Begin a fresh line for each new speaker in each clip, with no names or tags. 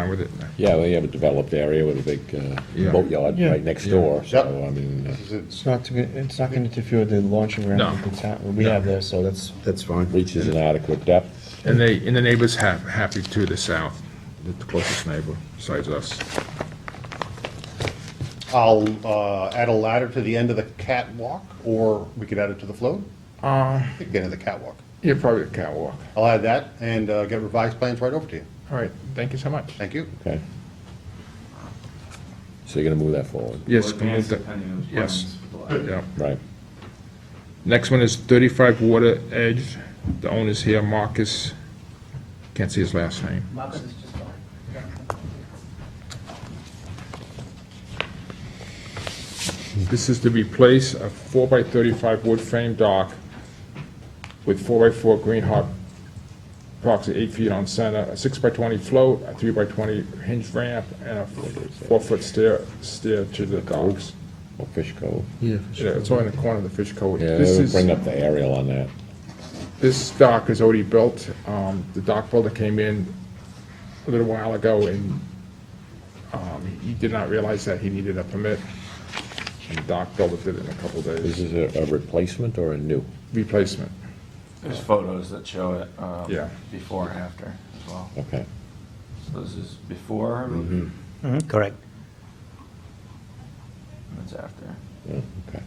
wrong with it.
Yeah, we have a developed area with a big
Yeah.
uh, boatyard
Yeah.
right next door, so,
Yep.
I mean, uh,
This is
It's not, to- it's not going to interfere with the launching ramp
No.
that the town- we have there, so that's,
That's fine.
reaches an adequate depth.
And they, and the neighbors have, happy to the south, the closest neighbor besides us.
it. I'll uh, add a ladder to the end of the catwalk, or we could add it to the float.
Uh,
We could Get in the catwalk.
yeah, probably a catwalk.
I'll add that and uh, get revised plans right over to you.
All right, thank you so much.
Thank you.
Okay. So you're gonna move that forward,
Yes,
Or
can we move
advance
that-
depending on the
yes.
plans with the
yeah.
right?
Next one is 35 Water Edge. The owner's here, Marcus, can't see his last name.
Marcus is just gone.
This is to replace a 4x35 wood frame dock with 4x4 green hop, approximately 8 feet on center, a 6x20 float, a 3x20 hinge ramp, and a 4-foot stair, stair to the docks.
Or Fish Cove.
yeah.
Yeah, it's all in the corner of the fish cove.
Yeah,
This
we'll
is-
bring up the aerial on that.
This dock is already built. Um, The dock builder came in a little while ago, and um, he did not realize that he needed a permit. And the dock builder did it in a couple
This
days.
is a a replacement or a new?
Replacement,
There's photos that show it, um,
Yeah.
before and after as well.
Okay.
So this is before,
Mm-hmm.
and
Correct.
it's after.
Yeah, okay.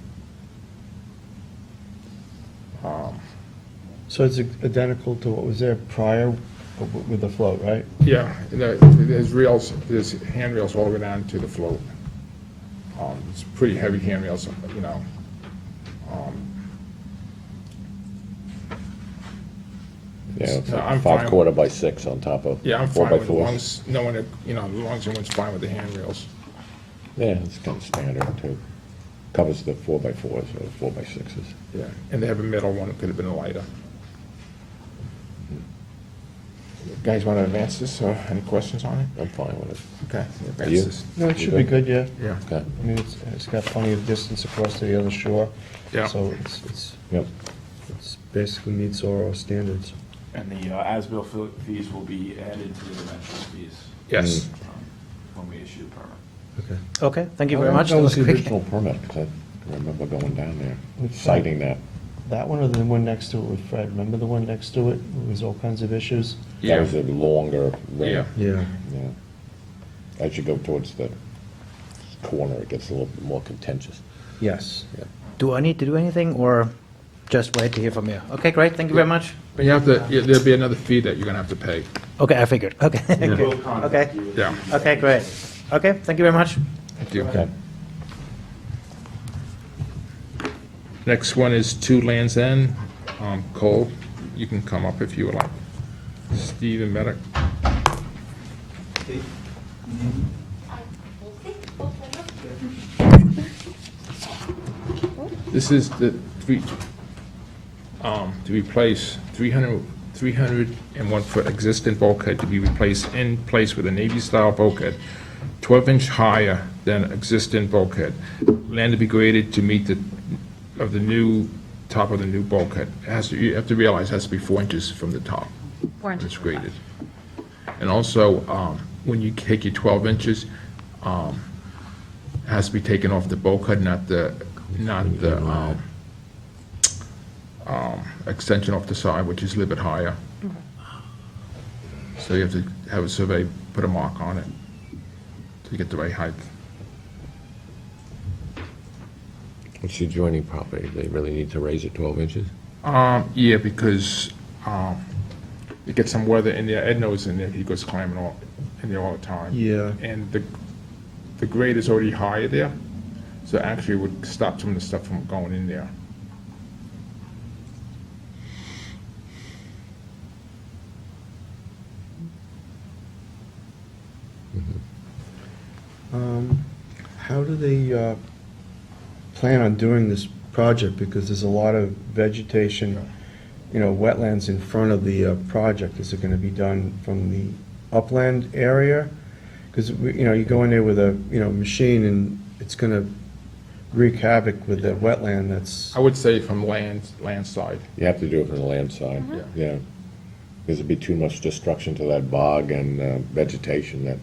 So it's identical to what was there prior but w- with the float, right?
yeah. and there- There's rails, there's handrails all the way down to the float. Um, It's pretty heavy handrails, you know.
Yeah, it's
No,
like
uh, I'm
five
fine.
quarter by six on top of
Yeah, I'm
four
fine
by
with,
four.
once, no one, you know, as long as everyone's fine with the handrails.
Yeah, it's kind of standard too. Covers the four by fours or four by sixes.
Yeah, and they have a metal one, it could have been lighter. Guys want to advance this, or any questions on it?
I'm fine with it.
Okay. advance
You?
this.
No, it should be good, yeah.
Yeah,
Okay,
I mean, it's, it's got plenty of distance across to the other shore.
Yeah.
So it's, it's,
yep.
it's basically meets all our standards.
And the uh, as-built fe- fees will be added to the dimensional fees
yes.
mm.
um, when we issue the permit.
Okay.
Okay, thank you very much.
That was
That
the
quick.
original permit, 'cause I remember going down there,
Which one?
citing that.
That one or the one next to it with Fred? Remember the one next to it? It was all kinds of issues?
Yeah.
That was a longer ramp.
Yeah.
Yeah. As you go towards the corner, it gets a little bit more contentious.
Yes.
Do I need to do anything or just wait to hear from you? Okay, great, thank you very much.
But you have to, yeah, there'll be another fee that you're going to have to pay.
Okay, I figured, okay.
We'll contact
Okay.
you.
Yeah.
Okay, great. Okay, thank you very much.
Thank you.
Okay.
Next one is Two Lands End. Um, Cole, you can come up if you would like. Steve and Medic. This is the three, um, to replace 300, 301 foot existing bulkhead to be replaced in place with a Navy-style bulkhead, 12 inch higher than existing bulkhead. Land to be graded to meet the, of the new, top of the new bulkhead. It Has, to- you have to realize, it has to be four inches from the top.
Four
when
inches
It's
from the top.
graded. And also, um, when you take your 12 inches, um, it has to be taken off the bulkhead, not the, not the um, um, extension off the side, which is a little bit higher. So you have to have a survey, put a mark on it to get the right height.
It's the adjoining property, they really need to raise it 12 inches?
Um, Yeah, because um, you get some weather in there, Ed knows in there, he goes climbing all, in there all the time.
Yeah.
And the, the grade is already higher there, so actually it would stop some of the stuff from going in there.
Um, How do they uh, plan on doing this project? Because there's a lot of vegetation, you know, wetlands in front of the uh, project. Is it going to be done from the upland area? Because, you know, you go in there with a, you know, machine and it's going to wreak havoc with the wetland that's,
I would say from land, land side.
You have to do it from the land side,
Mhm.
yeah. Because it'd be too much destruction to that bog and uh, vegetation that